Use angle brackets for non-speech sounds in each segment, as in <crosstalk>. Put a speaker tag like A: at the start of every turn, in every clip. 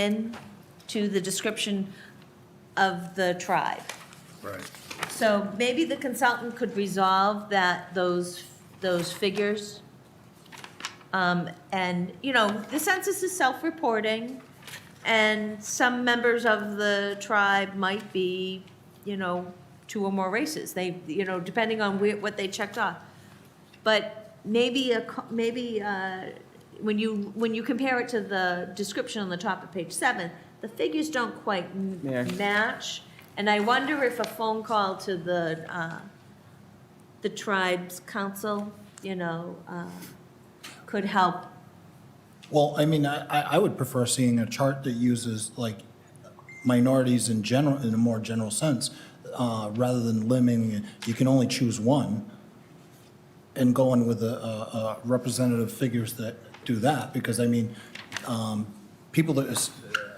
A: in to the description of the tribe.
B: Right.
A: So maybe the consultant could resolve that, those, those figures. Um, And, you know, the census is self-reporting, and some members of the tribe might be, you know, two or more races. They, you know, depending on where, what they checked off. But maybe a, co- maybe, uh, when you, when you compare it to the description on the top of page seven, the figures don't quite m-
C: Yeah.
A: match. And I wonder if a phone call to the, uh, the tribe's council, you know, uh, could help.
B: Well, I mean, I, I I would prefer seeing a chart that uses like minorities in general, in a more general sense, uh, rather than limiting, you can only choose one, and going with the uh, uh, representative figures that do that, because I mean, um, people that is-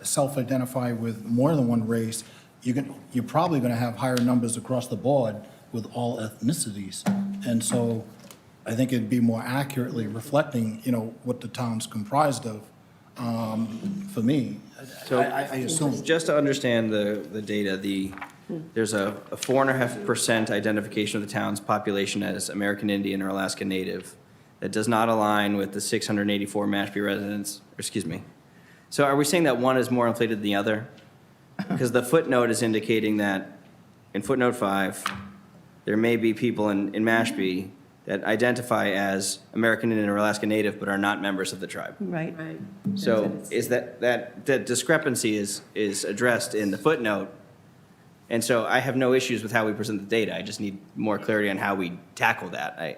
B: self-identify with more than one race, you can, you're probably gonna have higher numbers across the board with all ethnicities. And so I think it'd be more accurately reflecting, you know, what the town's comprised of, um, for me. I-
C: So-
B: I, I assume.
C: Just to understand the, the data, the, there's a a four and a half percent identification of the town's population as American Indian or Alaska Native. That does not align with the 684 Mashpee residents, or excuse me. So are we saying that one is more inflated than the other? Because the footnote is indicating that, in footnote five, there may be people in, in Mashpee that identify as American Indian or Alaska Native but are not members of the tribe.
D: Right.
C: So is that, that, that discrepancy is, is addressed in the footnote. And so I have no issues with how we present the data. I just need more clarity on how we tackle that. I,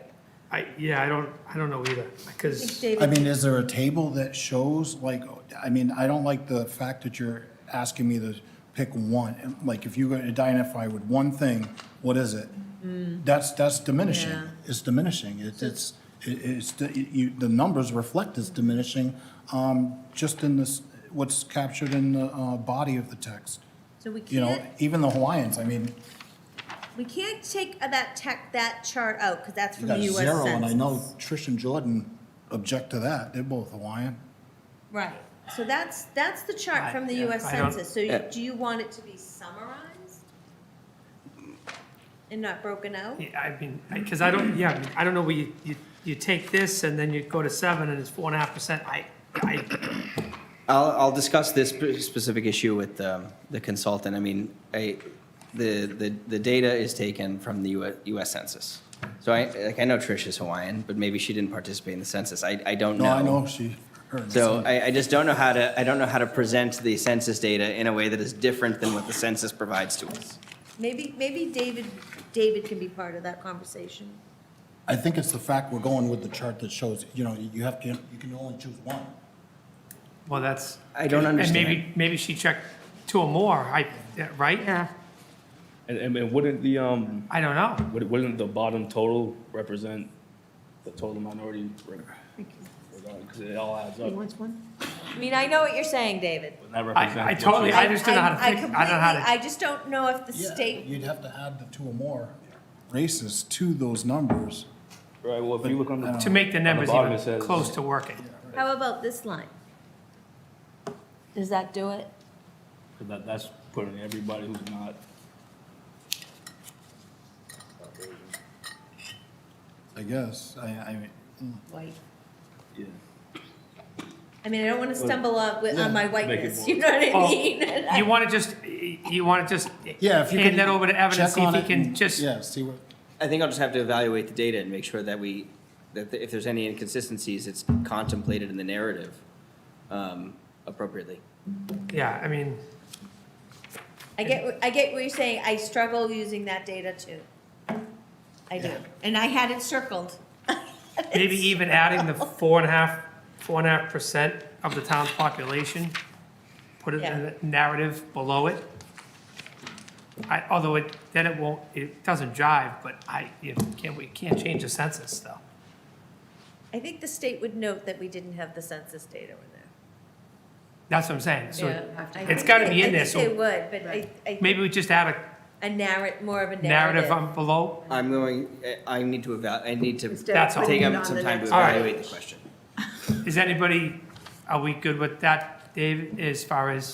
E: I, yeah, I don't, I don't know either, because
B: I mean, is there a table that shows, like, I mean, I don't like the fact that you're asking me to pick one. Like, if you're gonna identify with one thing, what is it? That's, that's diminishing.
A: Mm. Yeah.
B: It's diminishing. It's, it's, it- it's, the- you, the numbers reflect it's diminishing, um, just in this, what's captured in the, uh, body of the text.
A: So we
B: You know,
A: can't,
B: even the Hawaiians, I mean,
A: we can't take uh, that tech, that chart out, because that's
B: you
A: from the US
B: got zero, and I know
A: Census.
B: Trish and Jordan object to that. They're both Hawaiian.
A: Right, so that's, that's the chart from the
E: I- yeah,
A: US
E: I don't-
A: Census, so you-
C: Yeah.
A: do you want it to be summarized? And not broken out?
E: yeah, I mean, because I don't, yeah, I mean, I don't know, where you, you, you take this and then you go to seven and it's four and a half percent, I, I,
C: I'll, I'll discuss this spe- specific issue with um, the consultant. I mean, I, the, the, the data is taken from the US US Census. So I, like, I know Trish is Hawaiian, but maybe she didn't participate in the census. I, I don't know.
B: No, I know she. her-
C: So I, I just don't know how to, I don't know how to present the census data in a way that is different than what the census provides to us.
A: Maybe, maybe David, David can be part of that conversation.
B: I think it's the fact we're going with the chart that shows, you know, you have to, you can only choose one.
E: well, that's.
C: I don't
E: And
C: understand.
E: maybe, maybe she checked two or more, I, yeah, right?
D: Yeah.
F: And, and and wouldn't the, um,
E: I don't know,
F: would- wouldn't the bottom total represent the total minority? reg- regard- Cause it all adds up.
D: one?
A: I mean, I know what you're saying, David.
F: Would that
E: I- I
F: represent what
E: totally-
F: you-
E: I just don't know how to
A: I- I
E: fix- I don't know how to-
A: completely- I just don't know if the state,
B: You'd have to add the two or more races to those numbers.
F: Right, well, if you look on the.
E: to make the numbers
F: bottom it
E: even
F: says-
E: close to working.
A: how about this line? Does that do it?
F: That, that's putting everybody who's not.
B: I guess, I, I mean,
A: White.
F: Yeah.
A: I mean, I don't want to stumble on, with- on my whiteness,
F: more-
A: you know what I
E: Oh,
A: mean? <laughs>
E: You want to just, you want to just
B: yeah, if you can.
E: hand that over to Evan and
B: check
E: see if
B: on
E: he
B: it
E: can
B: and-
E: just,
B: Yeah, see what,
C: I think I'll just have to evaluate the data and make sure that we, that if there's any inconsistencies, it's contemplated in the narrative um, appropriately.
E: yeah, I mean,
A: I get, what- I get what you're saying, I struggle using that data too. I do, and I had it circled.
E: maybe even adding the four and a half, four and a half percent of the town's population, put it in
A: Yeah.
E: the narrative below it. I, although it, then it won't, it doesn't jive, but I, you can't, we can't change the census though.
A: I think the state would note that we didn't have the census data in there.
E: That's what I'm saying, so
A: I
E: it's
A: think
E: gotta
A: they-
E: be in there,
A: I think they
E: so
A: would, but I, I, think
E: maybe we just add a
A: a narrat, more of a
E: narrative
A: narrative.
E: on below.
C: I'm going, I I need to eval, I need to
G: Instead
E: of
C: take
E: putting
C: up some time to
E: All right.
C: evaluate the question.
E: Is anybody, are we good with that Dave, as far as